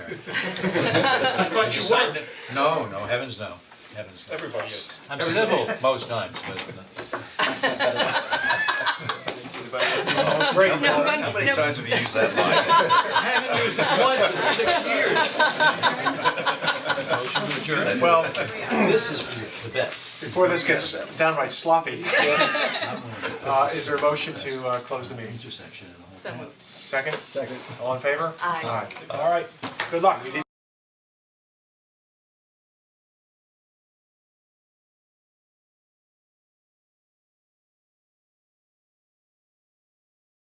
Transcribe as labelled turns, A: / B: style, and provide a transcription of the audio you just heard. A: I thought you were.
B: No, no, heavens no, heavens no.
A: Everybody is.
B: I'm civil most times, but
C: No, but- no.
D: have you used that line?
A: I haven't used it once in six years.
E: Well,
B: this is the best.
E: before this gets downright sloppy, uh, is there a motion to uh, close the meeting?
B: Intersection and all.
C: So moved.
E: Second? Second. All in favor?
C: Aye.
E: All right, good luck.